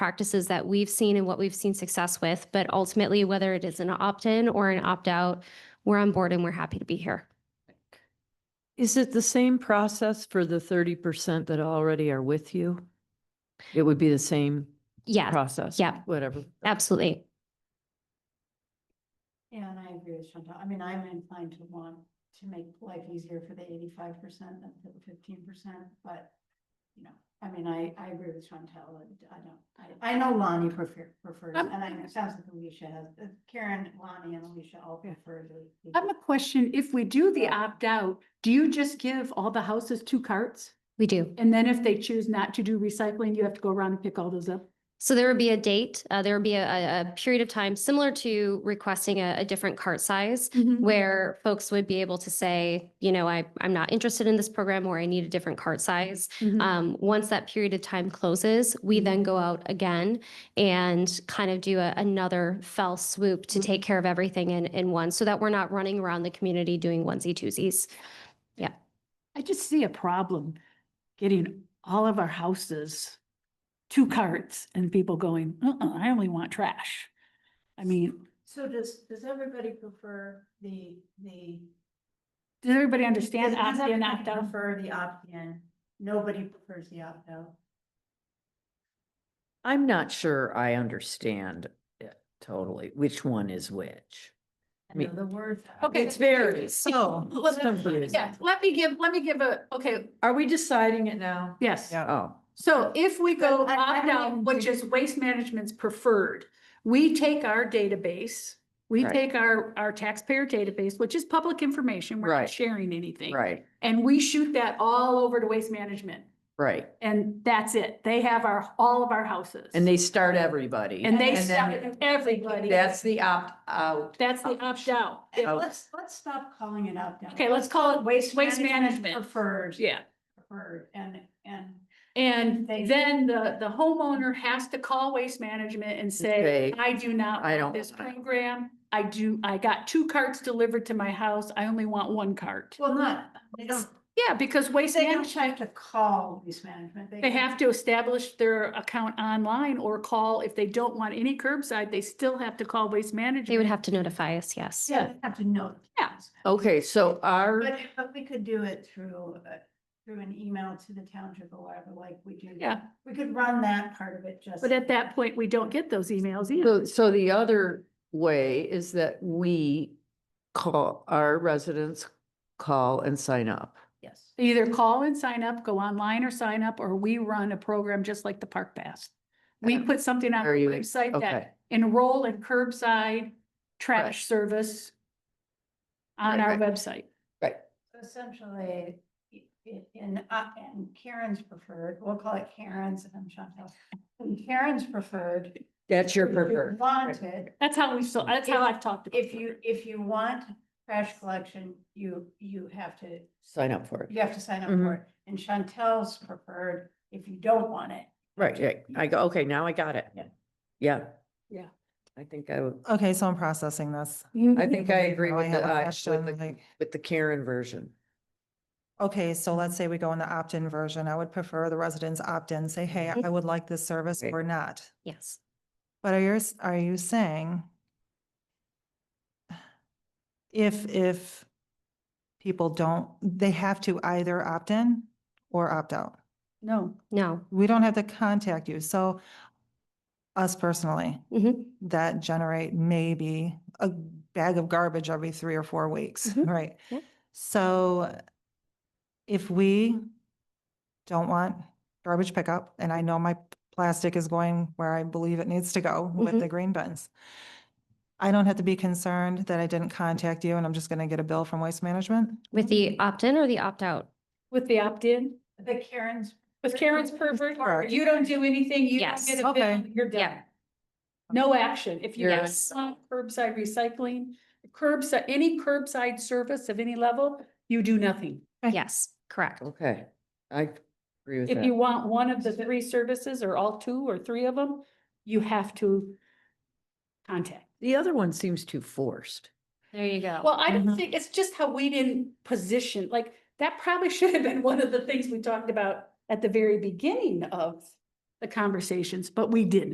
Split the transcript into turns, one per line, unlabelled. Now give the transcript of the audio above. practices that we've seen and what we've seen success with. But ultimately, whether it is an opt-in or an opt-out, we're on board and we're happy to be here.
Is it the same process for the thirty percent that already are with you? It would be the same
Yeah,
process?
yeah.
Whatever.
absolutely.
Yeah, and I agree with Chantal. I mean, I'm inclined to want to make life easier for the eighty-five percent than for the fifteen percent, but, you know, I mean, I, I agree with Chantal. and I don't, I, I know Lonnie prefer, prefers,
I'm-
and I know it sounds like Alicia has, uh, Karen, Lonnie and Alicia all prefer the.
I have a question. If we do the opt-out, do you just give all the houses two carts?
We do.
And then if they choose not to do recycling, you have to go around and pick all those up?
So there would be a date, uh, there would be a, a- a period of time similar to requesting a, a different cart size
Mm-hmm.
Mm-hmm.
where folks would be able to say, you know, I, I'm not interested in this program or I need a different cart size.
Mm-hmm.
Mhm.
Um, once that period of time closes, we then go out again and kind of do a, another fell swoop to take care of everything in, in one, so that we're not running around the community doing onesie twosies.
I just see a problem getting all of our houses, two carts and people going, uh-uh, I only want trash. I mean,
So does, does everybody prefer the, the?
does everybody understand
does- does
opt-in,
everybody
opt-out?
Prefer the opt-in. Nobody prefers the opt-out.
I'm not sure I understand it totally, which one is which.
I
Me-
know the words.
Okay.
It's very, so.
Let's-
confusing.
Yeah, let me give, let me give a, okay,
Are we deciding it now?
yes.
Oh,
So if we go
But I- I
opt
don't
out,
even
which
think-
is waste management's preferred, we take our database, we
Right.
take our, our taxpayer database, which is public information, we're not
Right.
sharing anything.
right,
And we shoot that all over to waste management
right.
and that's it. They have our, all of our houses.
And they start everybody.
And they
then
stop it, everybody.
That's the opt-out.
That's the opt out.
Hey,
Oh.
Let's, let's stop calling it out.
Okay, let's call it waste, waste management.
Preferred,
Yeah.
preferred, and, and
And
They-
then the, the homeowner has to call waste management and
Say,
say, I do not
I
want
don't
this
want it."
program. I do, I got two carts delivered to my house. I only want one cart.
well, not, they don't,
Yeah, because waste
they don't
management,
have to call waste management.
they have to establish their account online or call, if they don't want any curbside, they still have to call waste management.
They would have to notify us, yes.
Yeah, they have to know.
Yeah.
Okay, so our,
But, but we could do it through, uh, through an email to the township or whatever, like we do.
Yeah.
We could run that part of it just.
But at that point, we don't get those emails
so,
either.
so the other way is that we call, our residents call and sign up.
Yes.
Either call and sign up, go online or sign up, or we run a program just like the Park Pass. We
Okay.
put something on our
Are you-
website that
Okay,
enroll in curbside
Right.
trash service on
Right,
our
right.
website.
right.
Essentially, i- i- in, uh, and Karen's preferred, we'll call it Karen's and Chantel. In Karen's preferred.
That's your
if you
preferred.
Wanted,
That's how we, so that's how
If-
I've talked. about
if you, if you want trash collection, you, you have to,
Sign up for it.
you have to sign up
Mm-hmm.
for it. And Chantel's preferred if you don't want it.
Right, right. I go, okay, now I got it.
Yeah.
Yeah.
Yeah.
I think I, would-
Okay, so I'm processing this.
I think I agree
Now
with
have
the,
a
I- with
question,
the,
like,
with the Karen version.
Okay, so let's say we go in the opt-in version. I would prefer the residents opt-in, say, hey,
Mm-hmm.
I would like this service
Right.
or not.
Yes.
But are you, s- are you saying if, if people don't, they have to either opt-in or opt-out?
No,
No.
We don't have to contact you. So us personally,
Mhm.
that generate maybe a bag of garbage every three or four weeks,
Mhm.
right?
Yeah.
So if we don't want garbage pickup, and I know my plastic is going where I believe it needs to go with the green bins, I don't have to be concerned that I didn't contact you and I'm just going to get a bill from Waste Management?
With the opt-in or the opt-out?
with the opt-in,
The Karen's,
with Karen's pervert,
Correct.
you don't do anything, you don't
Yes.
get a bill,
Okay.
you're done.
Yeah.
No action. If you don't
Yes.
want curbside recycling, curbside, any curbside service of any level, you do nothing.
Right.
Yes, correct.
Okay, I agree with
If you
that.
want one of the three services or all two or three of them, you have to contact.
The other one seems too forced.
There you go.
Well, I don't
Mhm.
think, it's just how we didn't position, like, that probably should have been one of the things we talked about at the very beginning of the conversations, but we didn't.